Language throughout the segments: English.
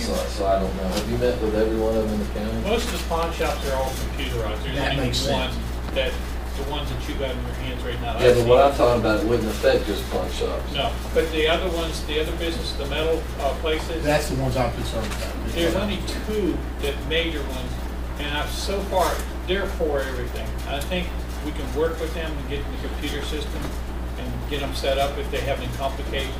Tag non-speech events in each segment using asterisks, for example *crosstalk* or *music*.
So, so I don't know. Have you met with every one of them in the county? Most of the pawn shops are all computerized. There's That only makes one sense. That, the ones that you got in your hands right now. Yeah, I've but what seen. I'm talking about wouldn't affect just pawn shops. No, but the other ones, the other business, the metal uh, places. That's the ones I'm concerned about. There's only two that major ones, and I've so far, they're for everything. I think we can work with them and get the computer system and get them set up if they have any complications.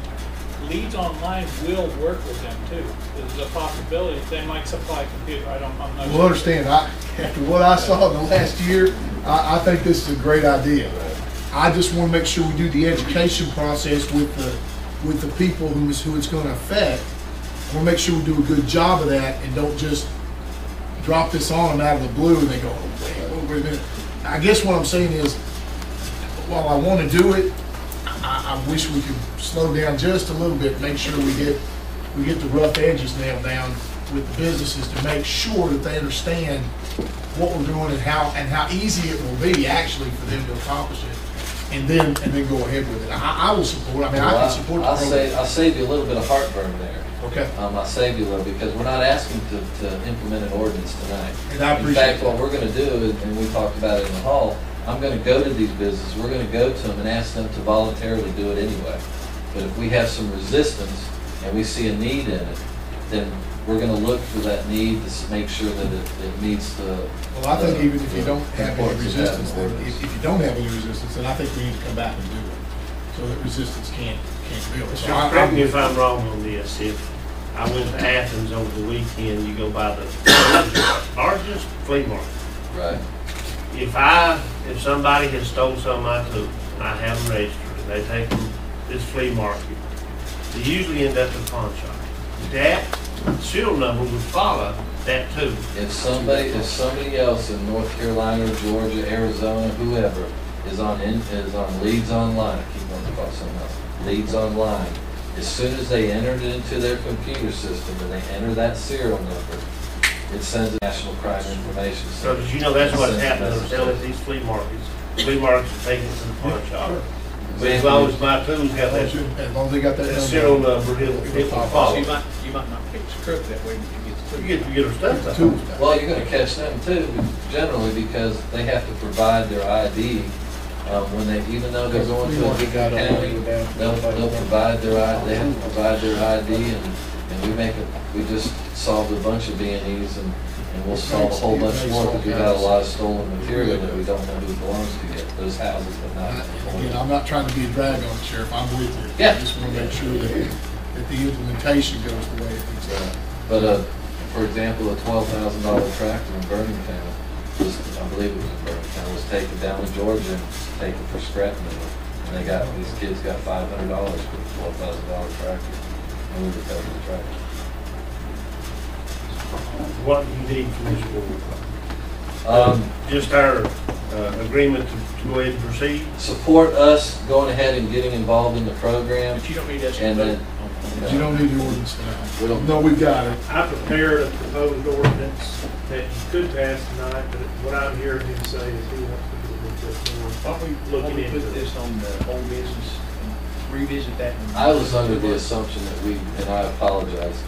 Leads Online will work with them too. There's a possibility, they might supply computer, I don't, I'm not sure. Well, understand, I, after what I saw in the last year, I, I think this is a great idea. I just want to make sure we do the education process with the, with the people who is, who it's going to affect. I want to make sure we do a good job of that and don't just drop this on them out of the blue and they go, "Oh, wait, wait, wait a minute. I guess what I'm saying is, while I want to do it, I, I wish we could slow down just a little bit, make sure we get, we get the rough edges nailed down with the businesses to make sure that they understand what we're doing and how, and how easy it will be actually for them to accomplish it. And then, and then go ahead with it. I, I will support, I mean, I Well, can support the I'll save, program. I'll save you a little bit of heartburn there. Okay, Um, I'll save you a little, because we're not asking to, to implement an ordinance tonight. and I In appreciate that. fact, what we're gonna do, is- and we talked about it in the hall, I'm gonna go to these businesses, we're gonna go to them and ask them to voluntarily do it anyway. But if we have some resistance and we see a need in it, then we're gonna look for that need to s- make sure that it, it meets the. Well, I think the- even if you the don't have any importance of having resistance, or ordinance. if, if you don't have any resistance, then I think we need to come back and do it. So that resistance can't, can't build. So I- Correct me if I- I'm wrong on this, if I went to Athens over the weekend, you go by the largest flea market. Right, If I, if somebody has stole something I took, and I have them registered, and they take them to this flea market, they usually end up at the pawn shop. That serial number would follow that too. if somebody, if somebody else in North Carolina, Georgia, Arizona, whoever, is on, in- is on leads online, I keep wanting to call it something else, leads online, as soon as they enter it into their computer system and they enter that serial number, it sends a National Crime Information So, Center. did you know that's what's Sends a happening, they're message. selling at these flea markets. Flea markets are taking it to the pawn shop. We- As long as my tools got As that, long as they got that that serial number. number, it'll, it will Oh. So you follow. might, you might not pick the script that way when you get to. You get, you get her stuff back. Tools back. Well, you're gonna catch them too, generally, because they have to provide their ID, um, when they, even though they're going to a different county, they'll, they'll provide their ID, they have to provide their ID, and, and we make, a we just solved a bunch of B and E's, and, and we'll solve a whole bunch more, because we've got a lot of stolen material that we don't know who belongs to yet, those houses have not. And Again, I'm not trying to be a drag on the sheriff, I'm with you. Yeah. I just want to make sure that, that the implementation goes the way it needs to. But, uh, for example, a twelve thousand dollar tractor in Birmingham was, I believe it was in Birmingham, was taken down to Georgia and taken for scrap metal. And they got, these kids got five hundred dollars for a twelve thousand dollar tractor. And we recovered the tractor. What do you need from this board? Um, Just our uh, agreement to to go ahead and proceed? support us going ahead and getting involved in the program But you don't need that. and uh, then. But you don't need the ordinance now. We don't- No, we've got it. I prepared a proposed ordinance that you could pass tonight, but what I'm hearing him say is he wants to do a little bit more. Why don't we, why don't we put this on the whole business and revisit that? I was under the assumption that we, and I apologize,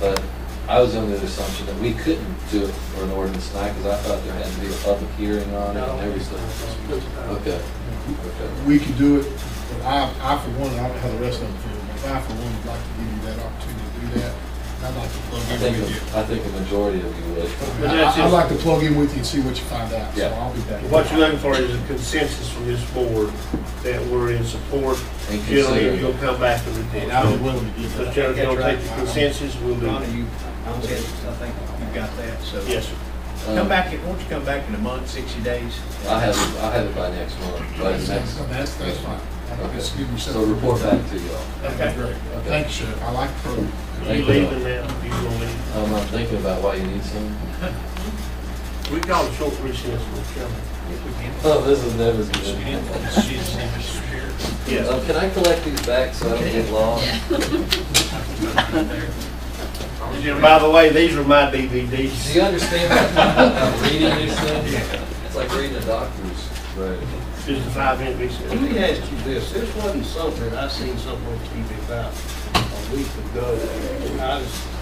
but I was under the assumption that we couldn't do it for an ordinance tonight because I thought there had to be a public hearing on it and everything. Okay, okay. We can do it, but I, I for one, I don't know how the rest of them feel, but I for one would like to give you that opportunity to do that. I'd like to I plug think, in with you. the- I think the majority of you would. I- But that's I'd just- like to plug in with you and see what you find out, so Yeah. I'll be back. What you're looking for is a consensus from this board that we're in support. And Generally, consider, you'll come back to the And I'll be board. willing to give So that. General, you'll take the consensus, we'll do Donna, it. you, I said, I think you've got that, so. Yes, sir. Come back, in- won't you come back in a month, sixty days? I'll Um, have, it- I'll have it by next month, by That's, next. that's, that's fine. Just give Okay. yourself- So report back to y'all. That'd be great. Thank you, Sheriff. I like the program. You Thank leaving you. now, you gonna leave? Um, I'm thinking about why you need some. *laughs* We call a short recess, Mr. Chairman. Oh, this is never good. Yes. Um, can I collect these back so I don't get lost? And by the way, these are my Do DVDs. you understand that I'm reading these *laughs* things? It's like reading a doctor's. Right. Just a five-minute Let me recess. ask you this, this wasn't something, I seen something on TV about a week ago, I was